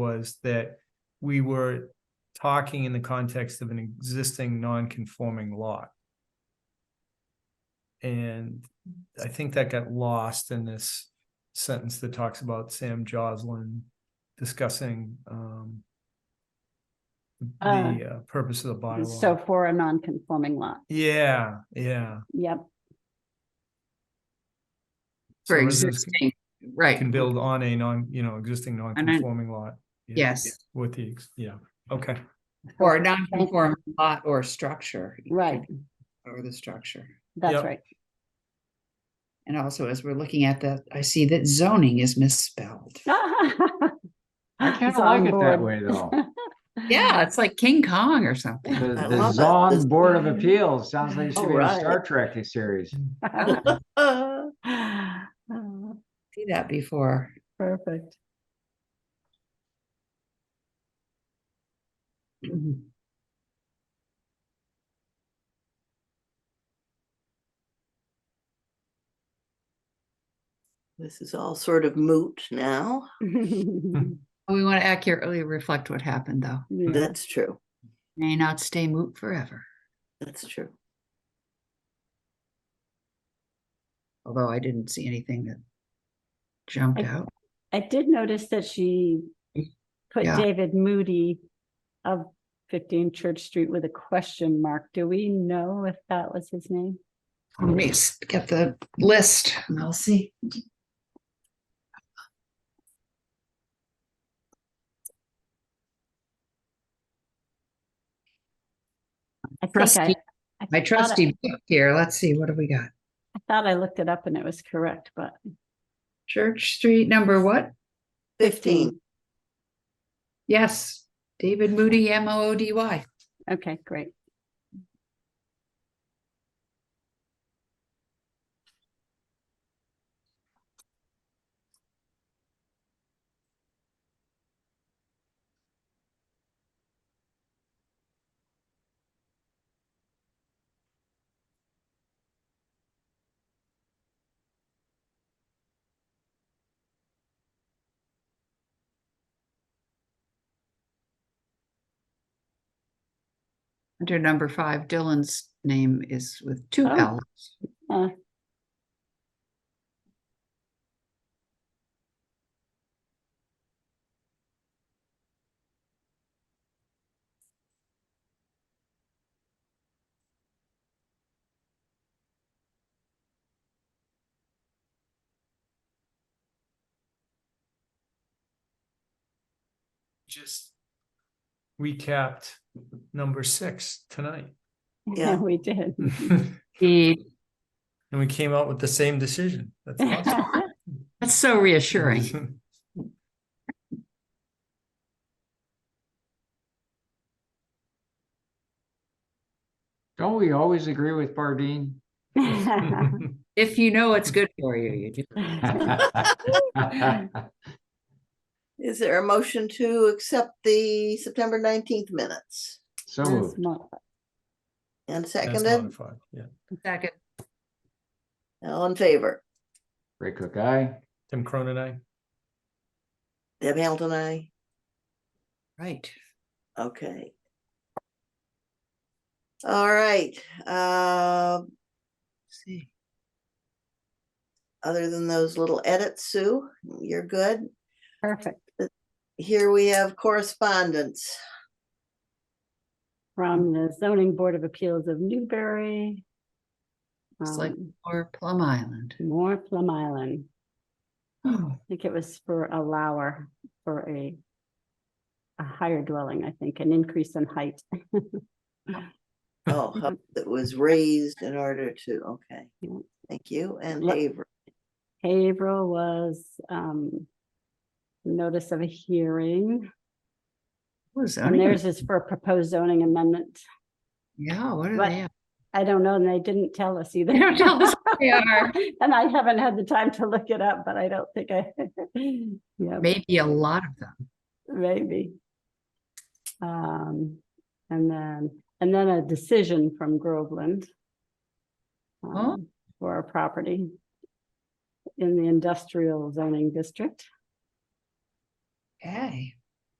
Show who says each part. Speaker 1: was that we were talking in the context of an existing non-conforming lot. And I think that got lost in this sentence that talks about Sam Joslin discussing um
Speaker 2: Uh,
Speaker 1: the uh, purpose of the bylaw.
Speaker 2: So for a non-conforming lot,
Speaker 1: Yeah, yeah.
Speaker 2: yep,
Speaker 3: For
Speaker 1: So residents
Speaker 3: existing, right,
Speaker 1: Can build on a non, you know, existing non-conforming lot. Yeah,
Speaker 3: yes,
Speaker 1: With the, ex- yeah, okay,
Speaker 3: or a non-conforming lot or structure.
Speaker 2: Right.
Speaker 3: Or the structure.
Speaker 1: Yep.
Speaker 2: that's right.
Speaker 3: And also, as we're looking at that, I see that zoning is misspelled.
Speaker 4: I kind
Speaker 2: It's
Speaker 4: of
Speaker 2: on
Speaker 4: like it
Speaker 2: board.
Speaker 4: that way though.
Speaker 3: Yeah, it's like King Kong or something.
Speaker 4: The,
Speaker 5: I
Speaker 4: the
Speaker 5: love it.
Speaker 4: Zon Board of Appeals sounds like it should be in a
Speaker 5: Alright.
Speaker 4: Star Trek series.
Speaker 5: Uh,
Speaker 2: Oh,
Speaker 3: See that before.
Speaker 5: Perfect.
Speaker 3: Mhm.
Speaker 5: This is all sort of moot now.
Speaker 3: We want to accurately reflect what happened, though.
Speaker 2: yeah.
Speaker 5: That's true.
Speaker 3: May not stay moot forever,
Speaker 5: That's true.
Speaker 3: although I didn't see anything that jumped
Speaker 2: I-
Speaker 3: out.
Speaker 2: I did notice that she put
Speaker 3: Yeah.
Speaker 2: David Moody of fifteen Church Street with a question mark. Do we know if that was his name?
Speaker 3: Let me s- get the list and I'll see.
Speaker 2: I think I,
Speaker 3: Trustee,
Speaker 2: I
Speaker 3: my
Speaker 2: thought I-
Speaker 3: trusty book here, let's see, what do we got?
Speaker 2: I thought I looked it up and it was correct, but
Speaker 3: Church Street number what?
Speaker 5: Fifteen.
Speaker 3: Yes, David Moody, M O O D Y.
Speaker 2: okay, great.
Speaker 3: Under number five, Dylan's name is with two
Speaker 2: Oh.
Speaker 3: L's.
Speaker 2: Huh.
Speaker 1: just recapped number six tonight.
Speaker 5: Yeah.
Speaker 2: We did.
Speaker 1: And
Speaker 3: The-
Speaker 1: we came out with the same decision, that's awesome.
Speaker 3: That's so reassuring.
Speaker 4: Don't we always agree with Bardine?
Speaker 3: If you know it's good for you, you do.
Speaker 5: Is there a motion to accept the September nineteenth minutes?
Speaker 4: So
Speaker 2: As
Speaker 4: moved.
Speaker 2: mo-
Speaker 5: And
Speaker 1: That's
Speaker 5: seconded,
Speaker 1: modified, yeah.
Speaker 3: Second,
Speaker 5: all in favor?
Speaker 4: Ray Cook, aye.
Speaker 1: Tim Cronin, I.
Speaker 5: Deb Hamilton, I,
Speaker 3: right.
Speaker 5: okay. All right, uh,
Speaker 3: See,
Speaker 5: other than those little edits, Sue, you're good.
Speaker 2: Perfect.
Speaker 5: Here we have correspondence.
Speaker 2: From the zoning board of appeals of Newbury.
Speaker 3: It's like-
Speaker 2: um,
Speaker 3: or Plum Island.
Speaker 2: More Plum Island.
Speaker 3: Oh,
Speaker 2: I think it was for a lower, for a a higher dwelling, I think, an increase in height.
Speaker 5: Oh, how- that was raised in order to, okay.
Speaker 2: Yeah.
Speaker 5: Thank you, and
Speaker 2: Let-
Speaker 5: Haver,
Speaker 2: Haverhill was um notice of a hearing,
Speaker 3: what is
Speaker 2: and
Speaker 3: zoning?
Speaker 2: theirs is for a proposed zoning amendment.
Speaker 3: Yeah, what are
Speaker 2: What?
Speaker 3: they?
Speaker 2: I don't know, and they didn't tell us either.
Speaker 3: They don't tell us what they are.
Speaker 2: And I haven't had the time to look it up, but I don't think I, yeah.
Speaker 3: Maybe a lot of them.
Speaker 2: Maybe. Um, and then, and then a decision from Groveland.
Speaker 3: Oh.
Speaker 2: um, For a property. In the industrial zoning district,
Speaker 3: Okay.